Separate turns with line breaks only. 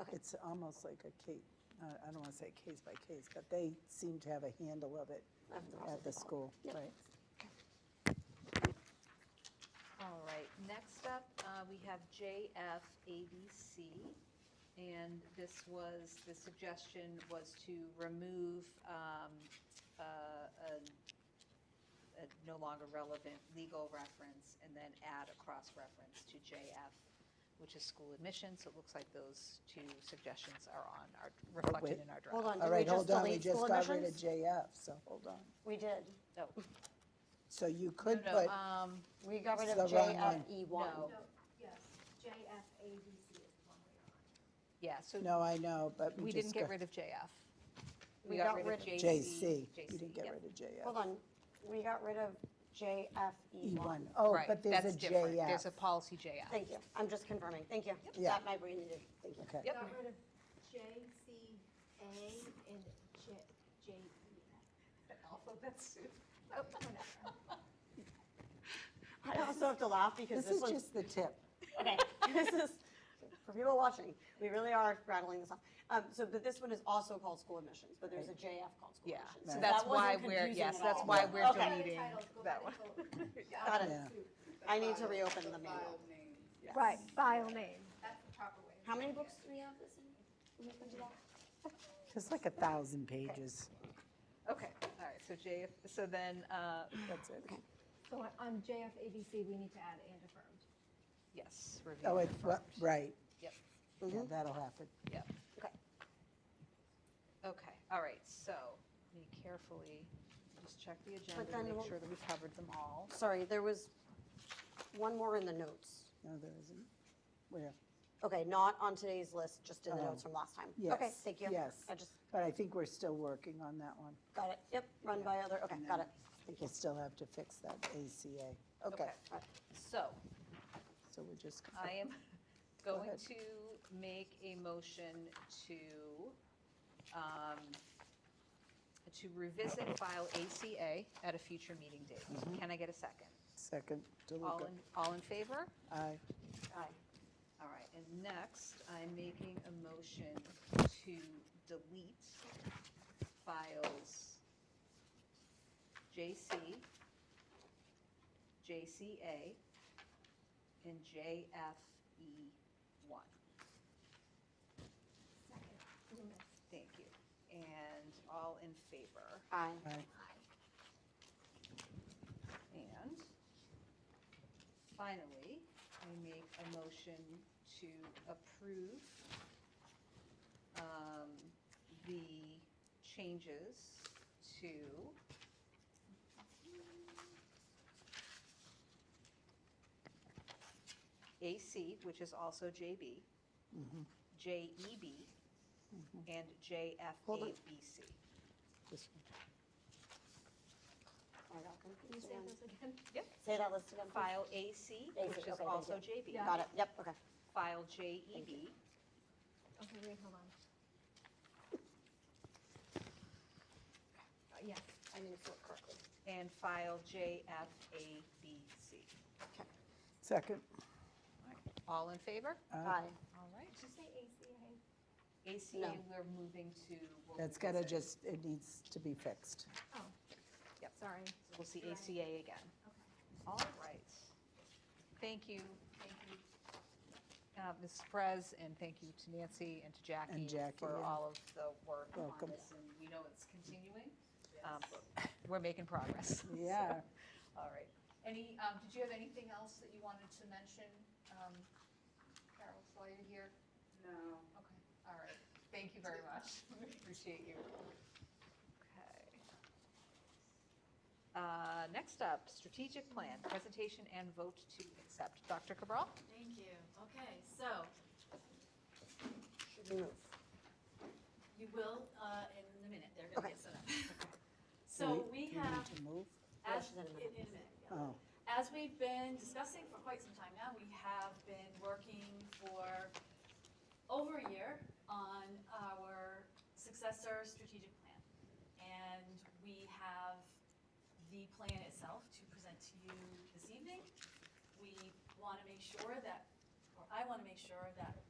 Okay.
It's almost like a case, I don't want to say case by case, but they seem to have a handle of it
Of the-
at the school,
Yep.
right?
All right, next up, uh, we have JFABC. And this was, the suggestion was to remove um, uh, a a no longer relevant legal reference and then add a cross-reference to JF, which is school admissions. So it looks like those two suggestions are on our, reflected in our draft.
Hold on,
All
did we
right,
just
hold on, we
delete
just
school
got rid of
admissions?
JF, so hold on.
We did.
No,
So you could
no,
put,
um,
We got rid of
It's the wrong one.
JFE one.
No.
No, yes, JFABC is the one we're
yeah, so
no, I know, but
We
we
didn't
just
get
got
rid of JF. We got rid of JC.
JC. You didn't get
yep.
rid of JF.
Hold on, we got rid of JFE
E1.
one.
Oh,
Right,
but there's
that's
a
different. There's a
JF.
policy JF.
Thank you, I'm just confirming, thank you.
Yeah.
That my brain needed, thank you.
Okay.
on.
Yep.
Got rid of JCA and J, E JEF.
Alphabet soup.
Oh, I also have to laugh because
This
this
is
one's
just the tip.
Okay, this is, for people watching, we really are rattling this off. Um, so, but this one is also called school admissions, but there's a JF called school
Yeah,
admissions.
so
So
that's
that wasn't
why we're,
confusing
yes,
at
that's
all.
why we're
Okay.
deleting that one.
Got it.
Yeah.
I need to reopen the manual.
Right, file name.
That's the proper way.
How many books do we have this in? Can we do that?
It's like a thousand pages.
Okay, all right, so JF, so then, uh,
That's it.
So on- on JFABC, we need to add and affirmed.
yes, review.
Oh,
and
it,
affirm.
right.
Yep,
Yeah,
Mm-hmm.
that'll happen.
yep.
Okay.
Okay, all right, so, let me carefully, just check the agenda,
then
to make
we'll-
sure that we covered them all.
Sorry, there was one more in the notes.
No, there isn't. Where?
Okay, not on today's list, just in the
Oh.
notes from last time.
Yes.
Okay, thank you.
Yes.
I just
But I think we're still working on that one.
got it. Yep, run by other, okay, got it. Thank you.
We'll still have to fix that ACA. Okay,
Okay.
All right.
So,
so we're just.
I am
Go
going
ahead.
to make a motion to, um, to revisit file ACA at a future meeting date.
Mm-hmm.
Can I get a second?
Second,
All
DeLuca.
in, all in favor?
Aye.
Aye.
All right, and next, I'm making a motion to delete files JC, JCA, and E JFE1. Thank you. And all in favor?
Aye.
Aye.
And finally, I make a motion to approve um, the changes to AC, which is also JB,
Mm-hmm.
JEB, E and
Hold on.
JFABC.
This one.
I got
Can you
confused
say
again.
those again?
Yep.
Say that list again. please.
File AC,
AC,
which
okay,
is
thank
also
you.
JB.
Got it, yep, okay.
File E JEB,
Okay, wait, hold on. Uh, Yes,
I need to look correctly.
and file JFABC.
Okay.
Second,
All in favor?
Aye.
All right.
did you say ACA?
ACA,
No.
we're moving to. we'll
that's gotta
revisit.
just, it needs to be fixed.
Oh.
Yep.
Sorry.
We'll see
Right.
ACA again.
Okay.
All right. Thank you, thank you, uh, Ms. Perez, and thank you to Nancy and to Jackie.
Jackie,
For
yeah.
all of the work on
Welcome.
this, and we know it's continuing. Um, but We're making progress. so,
Yeah.
All right.
Any, um, did you have anything else that you wanted to mention, um, Carol, while you're here? No. Okay, all right. Thank you very much. We Appreciate you.
Okay. Uh, Next up, strategic plan, presentation and vote to accept. Dr. Cabral?
Thank you. Okay, so
Should we move?
you will, uh, in a minute, they're gonna
Okay.
get set up.
Do
So we
do need
have,
To move?
as,
Yes, in a minute.
in a minute, yeah.
Oh,
As we've been discussing for quite some time now, we have been working for over a year on our successor strategic plan. And we have the plan itself to present to you this evening. We want to make sure that, or I want to make sure that